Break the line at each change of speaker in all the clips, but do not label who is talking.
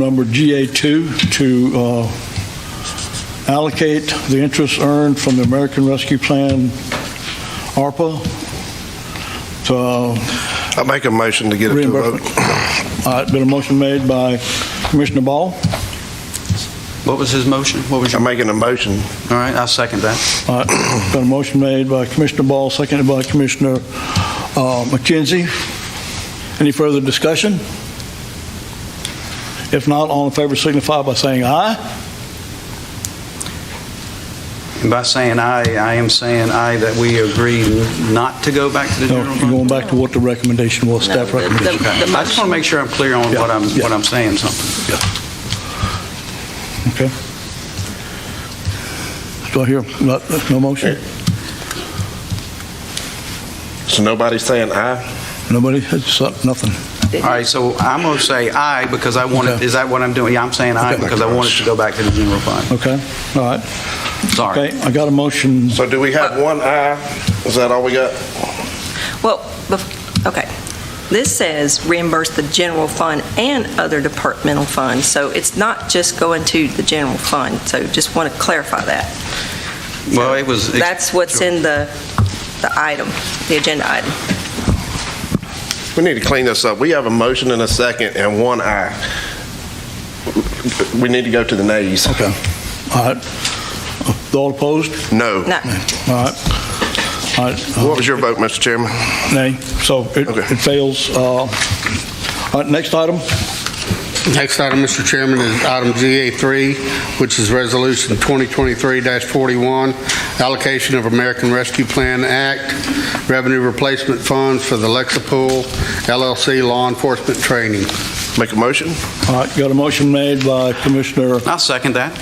Number GA2 to uh, allocate the interest earned from the American Rescue Plan ARPA to uh,
I make a motion to get it to a
reimbursement.
vote.
All right, been a motion made by Commissioner Ball.
What was his motion? What was your,
I'm
all
making a motion.
right, I'll second that.
All right, been a motion made by Commissioner Ball, seconded by Commissioner uh, McKenzie. Any further discussion? If not, all in favor signify by saying aye.
And by saying aye, I am saying aye that we agree not to go back to the
No,
general
you're going
fund.
back to what the recommendation was, staff
No, the- the-
recommendation.
Okay.
The
I just want to
motion-
make sure I'm clear on what I'm,
yeah.
what I'm saying something.
Okay. Do I hear, no- no motion?
So nobody's saying aye?
Nobody, it's up, nothing.
All right, so I'm going to say aye because I want it,
Okay.
is that what I'm doing? Yeah, I'm saying aye
Okay.
because I want it to go back to the general fund.
Okay, all right.
Sorry.
Okay, I got a motion.
So do we have one aye? Is that all we got?
Well, bef- okay. This says reimburse the general fund and other departmental funds, so it's not just going to the general fund, so just want to clarify that.
Well, it was.
That's what's in the, the item, the agenda item.
We need to clean this up. We have a motion and a second and one aye. We need to go to the nays.
Okay, all right. Uh, All opposed?
No.
No,
All right. All right, uh,
What was your vote, Mr. Chairman?
nay, so it
Okay.
it fails. Uh, All right, next item,
Next item, Mr. Chairman, is item GA3, which is Resolution 2023-41, allocation of American Rescue Plan Act revenue replacement funds for the Lexapol LLC Law Enforcement Training.
Make a motion?
all right, got a motion made by Commissioner
I'll second that.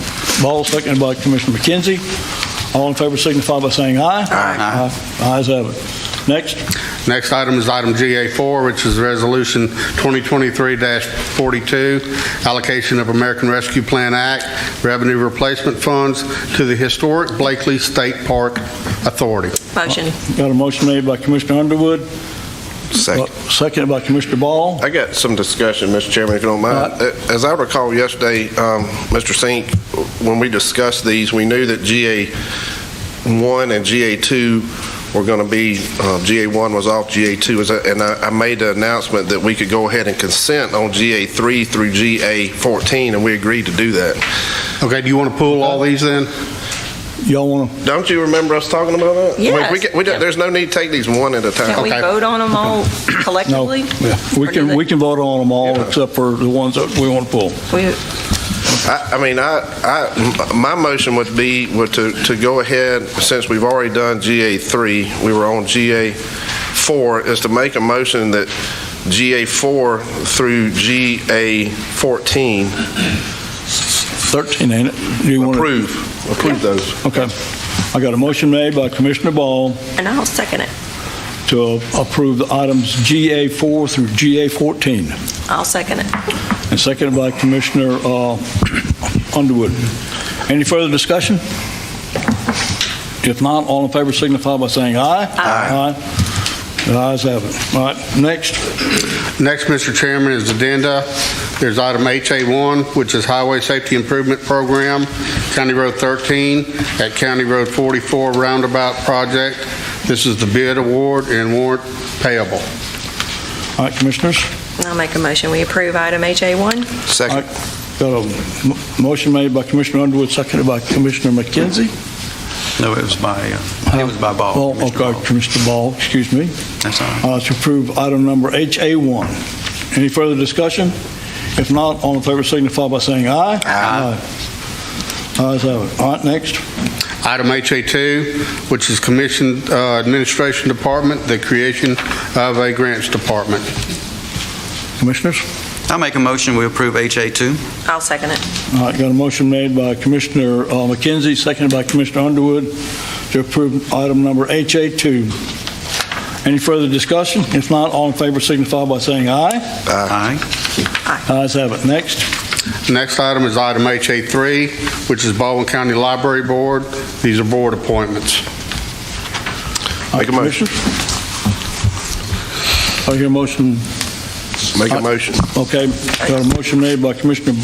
Ball, seconded by Commissioner McKenzie. All in favor signify by saying aye.
Aye.
Aye. Ayes have it. Next.
Next item is item GA4, which is Resolution 2023-42, allocation of American Rescue Plan Act revenue replacement funds to the historic Blakely State Park Authority.
motion.
Got a motion made by Commissioner Underwood, uh,
Second.
seconded by Commissioner Ball.
I got some discussion, Mr. Chairman, if you don't mind.
Uh,
Uh,
All
As I recall yesterday, um, Mr. Sink, when we discussed these, we knew that GA1 and GA2 were going to be, uh, GA1 was off, GA2 was, uh, and I I made the announcement that we could go ahead and consent on GA3 through GA14, and we agreed to do that.
Okay, do you want to pull all these then?
Y'all want
Don't you remember us talking about that? I mean, we
Yes.
can- we don't- There's no need to take these one at a
Can we
time.
Okay.
vote on them all
to? Uh, No.
collectively?
We
Or do
can,
they-
we can vote on them all
Yeah.
except for the ones that we want to pull.
we-
I, I mean, I, I, my motion would be, would to, to go ahead, since we've already done GA3, we were on GA4, is to make a motion that GA4 through GA14,
13, ain't it? Do you want to?
approve, approve those.
Okay. I got a motion made by Commissioner Ball
And I'll second it.
to approve the items GA4 through GA14,
I'll second it.
and seconded by Commissioner uh, Underwood. Any further discussion? If not, all in favor signify by saying aye. Aye. Aye. The ayes have it. All right, next.
Next, Mr. Chairman, is addenda. There's item HA1, which is Highway Safety Improvement Program, County Road 13 at County Road 44 Roundabout Project. This is the bid award and warrant payable.
All right, Commissioners.
I'll make a motion. We approve item HA1?
All
Second.
right, Got a m- motion made by Commissioner Underwood, seconded by Commissioner McKenzie.
No, it was by, uh, it was by Ball.
Ball,
Commissioner
okay,
Ball.
Commissioner Ball, excuse me.
That's all right.
Uh, To approve item number HA1. Any further discussion? If not, all in favor signify by saying aye. Aye.
Aye.
Ayes have it. All right, next.
Item HA2, which is Commission uh, Administration Department, the creation of a Grants Department.
Commissioners.
I'll make a motion, we approve HA2.
I'll second it.
All right, got a motion made by Commissioner uh, McKenzie, seconded by Commissioner Underwood to approve item number HA2. Any further discussion? If not, all in favor signify by saying aye.
Aye.
Ayes have it. Next.
Next item is item HA3, which is Baldwin County Library Board. These are board appointments.
Make a motion.
Commissioners? I hear a motion,
Make a motion.
okay, got a motion made by Commissioner